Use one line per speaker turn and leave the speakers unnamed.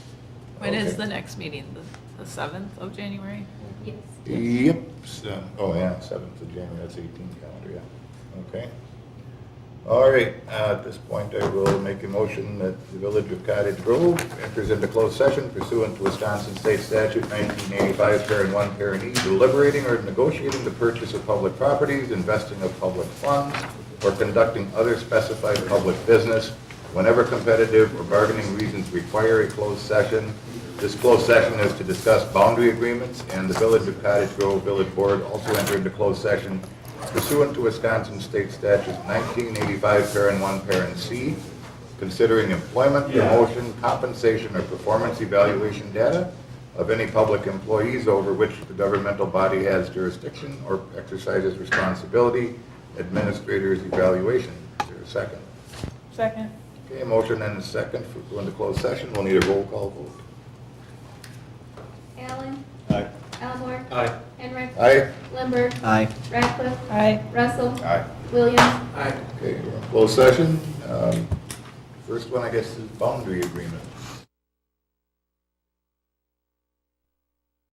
When is
Okay.
the next meeting? The- The 7th of January?
Yes.
Yep, so, oh yeah, seventh of January, that's eighteen calendar, yeah, okay. All right, uh, at this point, I will make a motion that the Village of Cottage Grove enters into closed session pursuant to Wisconsin State Statute nineteen eighty-five, parent one, parent E, deliberating or negotiating the purchase of public properties, investing of public funds, or conducting other specified public business whenever competitive or bargaining reasons require a closed session. This closed session is to discuss boundary agreements, and the Village of Cottage Grove Village Board also entered into closed session pursuant to Wisconsin State Statute 1985, parent 1, parent C, considering employment, promotion, compensation, or performance evaluation data of any public employees over which the governmental body has jurisdiction or exercises responsibility, administrator's evaluation. Is there a second?
Second.
Okay, motion and a second for going to closed session. We'll need a roll call vote.
Allen.
Aye.
Elmore.
Aye.
Henry.
Aye?
Limber.
Aye.
Ratcliffe.
Aye.
Russell.
Aye.
Williams.
Aye.
Okay, we're in closed session. Um, First one, I guess, is boundary agreement.